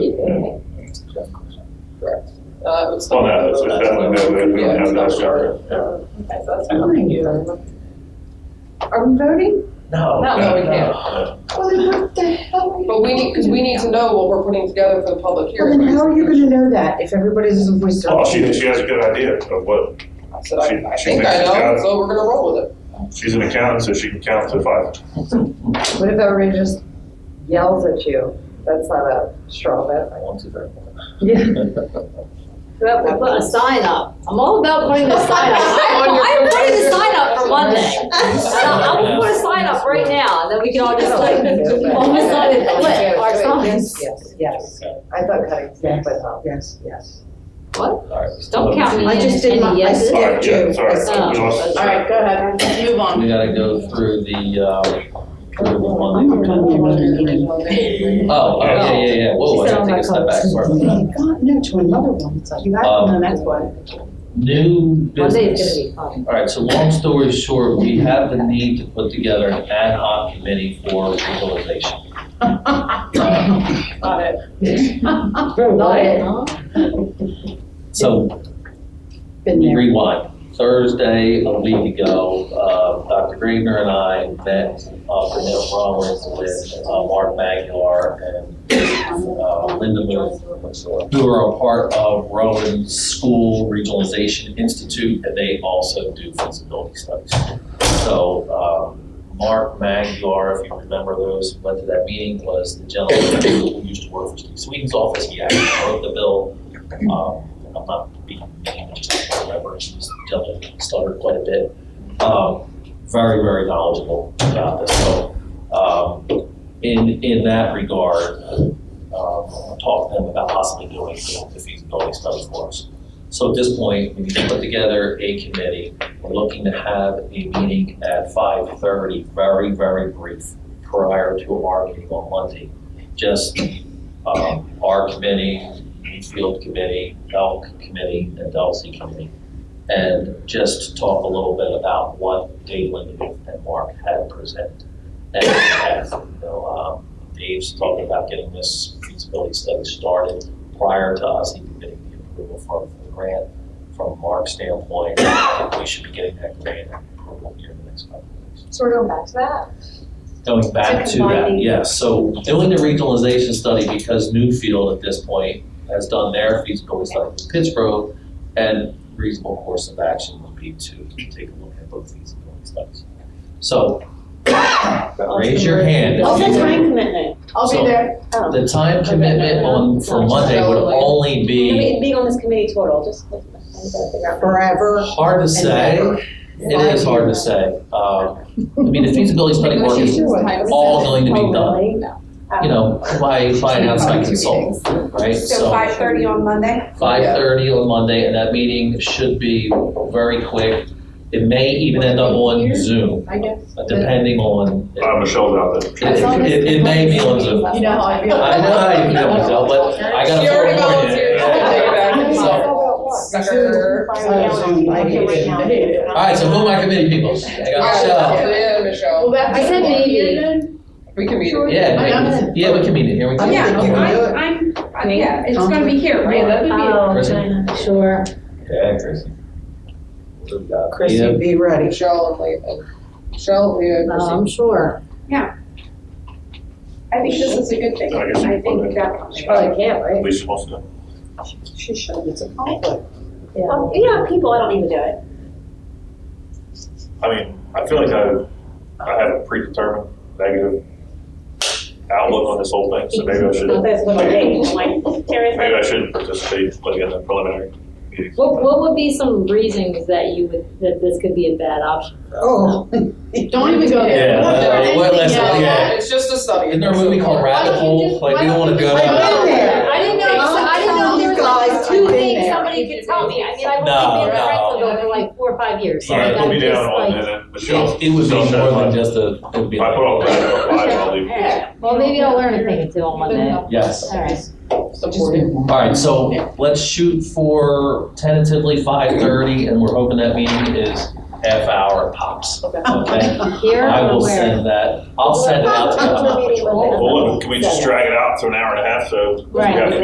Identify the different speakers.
Speaker 1: Oh,
Speaker 2: Correct.
Speaker 3: Uh, it's
Speaker 1: Well,
Speaker 3: not-
Speaker 1: no, it's definitely, no, we don't have that covered.
Speaker 3: Okay, so that's fine.
Speaker 4: Are we voting?
Speaker 2: No.
Speaker 3: No, no, we can't.
Speaker 4: Well, then what the hell? are you-
Speaker 3: But we need, because we need to know what we're putting together for the public
Speaker 4: Well, then
Speaker 3: hearing.
Speaker 4: how are you gonna know that if everybody's a voice?
Speaker 2: Oh,
Speaker 1: Well, she, she has a good idea of what,
Speaker 3: So I, I
Speaker 1: she- she
Speaker 3: think
Speaker 1: thinks
Speaker 3: I
Speaker 1: she's got
Speaker 3: know,
Speaker 1: it.
Speaker 3: so we're gonna roll with it.
Speaker 1: she's an accountant, so she can count to five.
Speaker 5: What if everybody just yells at you? That's not a straw vote.
Speaker 2: I want to very much.
Speaker 5: Yeah.
Speaker 6: Well, we'll put a sign up. I'm all about putting the sign up. I'm putting the sign up for one thing. I'm gonna put a sign up right now, and then we can all just like, all decided to quit our signs.
Speaker 5: Yes, yes. I thought cutting staff was up. Yes, yes.
Speaker 6: What?
Speaker 2: All right.
Speaker 6: Don't count me in
Speaker 4: I just did my- I
Speaker 6: any yeses.
Speaker 1: All
Speaker 4: Yeah,
Speaker 1: right, yeah,
Speaker 4: true.
Speaker 1: sorry.
Speaker 6: That's-
Speaker 1: We lost-
Speaker 5: All right, go ahead.
Speaker 7: Move on.
Speaker 2: We gotta go through the, uh, through the one. Oh, oh, yeah, yeah, yeah, whoa, I gotta take a step back, sorry about that.
Speaker 4: Oh God, no, to another one. You
Speaker 2: Um,
Speaker 4: have, no, that's why.
Speaker 2: New
Speaker 6: Monday is
Speaker 2: business.
Speaker 6: gonna be fun.
Speaker 2: All right, so long story short, we have the need to put together an ad hoc committee for legalization.
Speaker 3: Got it. Um,
Speaker 6: Not it, huh?
Speaker 2: So
Speaker 4: Been
Speaker 2: we
Speaker 4: there.
Speaker 2: rewind. Thursday, a week ago, uh, Dr. Greener and I met, uh, Vanessa Rollins with, uh, Mark Magular and, uh, Linda Moon, who are a part of Rowan's School Regionalization Institute, and they also do feasibility studies. So, um, Mark Maglar, if you remember those, who went to that meeting, was the gentleman who used to work for Steve Sweden's office, he actually wrote the bill. Um, I'm not being, I just don't remember, he was the gentleman who stuttered quite a bit. Um, very, very knowledgeable about this, so, um, in, in that regard, uh, um, talk to them about possibly doing the feasibility study for us. So at this point, we need to put together a committee. We're looking to have a meeting at five thirty, very, very brief, prior to our meeting on Monday. Just, um, our committee, Field Committee, Elk Committee, and Delsey Committee. And just talk a little bit about what Dave Lindenhoff and Mark had presented. And, as you know, um, Dave's talking about getting this feasibility study started prior to us even getting the approval for the grant. From Mark's standpoint, we should be getting that grant approval here in the next couple of weeks.
Speaker 5: So we're going back to that?
Speaker 2: Going back
Speaker 5: So
Speaker 2: to that,
Speaker 5: combining-
Speaker 2: yes, so doing the regionalization study because Newfield at this point has done their feasibility study with Pittsburgh and reasonable course of action would be to take a look at both feasibility studies. So, raise your hand. if
Speaker 5: I'll
Speaker 2: you
Speaker 5: take
Speaker 2: would-
Speaker 5: mine.
Speaker 6: commitment.
Speaker 5: I'll
Speaker 2: So-
Speaker 5: be there.
Speaker 2: The time commitment on, for Monday would only be
Speaker 6: Being on this committee total, just.
Speaker 4: Forever.
Speaker 2: hard to say. It is hard to say. Um, I mean, the feasibility study work is all going to be done, you know, by, by an outside consultant, right?
Speaker 7: So five thirty on Monday?
Speaker 2: Five thirty on Monday, and that meeting should be very quick. It may even end up on Zoom,
Speaker 4: I guess.
Speaker 2: depending on.
Speaker 1: Uh, Michelle's out there.
Speaker 2: It, it- it may be on Zoom.
Speaker 5: You know how I feel.
Speaker 2: I know how you feel, Michelle, but I gotta.
Speaker 3: She already
Speaker 2: throw a point in.
Speaker 3: volunteered. Sucker.
Speaker 5: All
Speaker 2: All right, so who are my committee people? I
Speaker 3: All
Speaker 2: got
Speaker 3: right, yeah,
Speaker 2: Michelle.
Speaker 3: Michelle.
Speaker 5: I said maybe.
Speaker 3: We can meet. it.
Speaker 2: Yeah,
Speaker 5: I
Speaker 2: maybe.
Speaker 5: am.
Speaker 2: yeah, we can meet it here, we can.
Speaker 7: Yeah,
Speaker 4: think you can do it.
Speaker 7: I'm, I'm, yeah, it's gonna be here,
Speaker 3: Yeah,
Speaker 7: right?
Speaker 3: that would be.
Speaker 2: Kristen?
Speaker 6: Oh, sure.
Speaker 2: Yeah, Chrissy.
Speaker 4: Chrissy, be ready.
Speaker 3: Michelle and Leah. Michelle, Leah,
Speaker 6: No,
Speaker 3: Chrissy.
Speaker 6: I'm sure.
Speaker 7: I think this is a good thing.
Speaker 1: I guess we
Speaker 7: I
Speaker 1: put
Speaker 7: think
Speaker 1: it-
Speaker 7: that.
Speaker 6: Probably Oh, can't, right?
Speaker 1: Least supposed to.
Speaker 4: She should, it's a conflict.
Speaker 6: Yeah.
Speaker 7: you know, people, I don't even do it.
Speaker 1: I mean, I feel like I, I have a predetermined negative outlook on this whole thing, so maybe I should,
Speaker 6: That's
Speaker 1: what I think,
Speaker 6: like,
Speaker 1: maybe I should participate, like in the preliminary meeting.
Speaker 6: What, what would be some reasons that you would, that this could be a bad option?
Speaker 4: Oh.
Speaker 5: Don't even go there.
Speaker 2: Yeah,
Speaker 5: Don't do
Speaker 2: uh, what
Speaker 5: anything
Speaker 2: less-
Speaker 5: else.
Speaker 2: yeah.
Speaker 3: It's just a study.
Speaker 2: Isn't there a movie called Rabbit Hole? Like, we don't wanna go
Speaker 4: I've been
Speaker 2: down.
Speaker 4: there.
Speaker 6: I didn't know, I didn't know there
Speaker 4: Guys,
Speaker 6: was like two
Speaker 4: I've been
Speaker 6: things
Speaker 4: there.
Speaker 6: somebody could tell me. I mean, I've
Speaker 2: No,
Speaker 6: only been around
Speaker 2: no.
Speaker 6: for like four or five years. so
Speaker 1: All right,
Speaker 6: I
Speaker 1: put me
Speaker 6: just,
Speaker 1: down on,
Speaker 6: like-
Speaker 1: and then Michelle.
Speaker 2: It would be
Speaker 1: Michelle said
Speaker 2: more than
Speaker 1: five.
Speaker 2: just a, it would be.
Speaker 1: If I put all that on five, I'll leave.
Speaker 6: Well, maybe I'll learn a thing or two on Monday.
Speaker 2: Yes.
Speaker 6: All right.
Speaker 3: Supporting.
Speaker 2: All right, so let's shoot for tentatively five thirty, and we're hoping that meeting is half hour pops, okay?
Speaker 6: Here
Speaker 2: I
Speaker 6: or
Speaker 2: will
Speaker 6: where?
Speaker 2: send that, I'll send it out to
Speaker 5: Meeting with
Speaker 1: Well, look, can we just drag it out to an hour and a half, so we
Speaker 6: Right.
Speaker 1: got